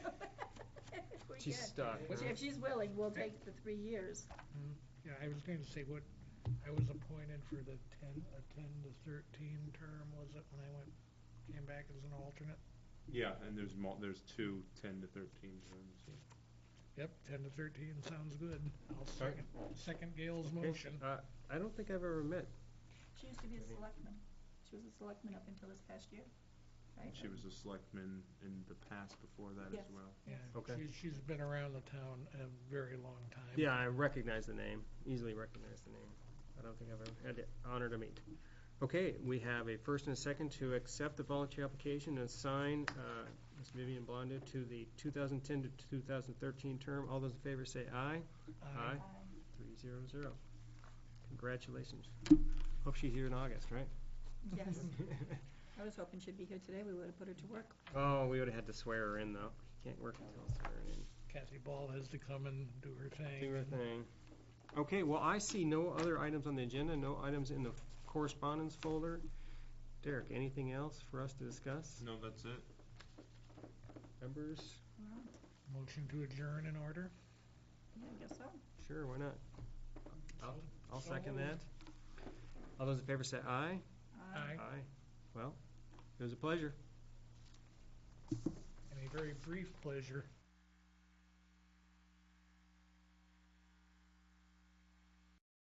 She's good. stuck. Which, if she's willing, we'll take the three years. Yeah, I was going to say what, I was appointed for the ten, a ten to thirteen term, was it, when I went, came back as an alternate? Yeah, and there's mul, there's two ten to thirteen terms. Yep, ten to thirteen, sounds good. I'll second, second Gail's motion. Uh, I don't think I've ever met. She used to be a selectman. She was a selectman up until this past year, right? She was a selectman in the past before that as Yes. well. Yeah, Okay. she- She's been around the town a very long time. Yeah, I recognize the name, easily recognize the name. I don't think I've ever had the honor to meet. Okay, we have a first and a second to accept the voluntary application and assign uh, Ms. Vivian Blondo to the 2010 to 2013 term. All those in favor say aye. Aye. Um, Three zero zero. Congratulations. Hope she's here in August, right? Yes. I was hoping she'd be here today. We would have put her to work. Oh, we would've had to swear her in, though. You Can't work until swearing in. Kathy Ball has to come and do her thing. Do her thing. Okay, well, I see no other items on the agenda, no items in the correspondence folder. Derek, anything else for us to discuss? No, that's it. Members? Motion to adjourn in order? Yeah, I guess so. Sure, why not? I'll, I'll second So that. moved. All those in favor say aye. Aye. Well, it was a pleasure. And a very brief pleasure.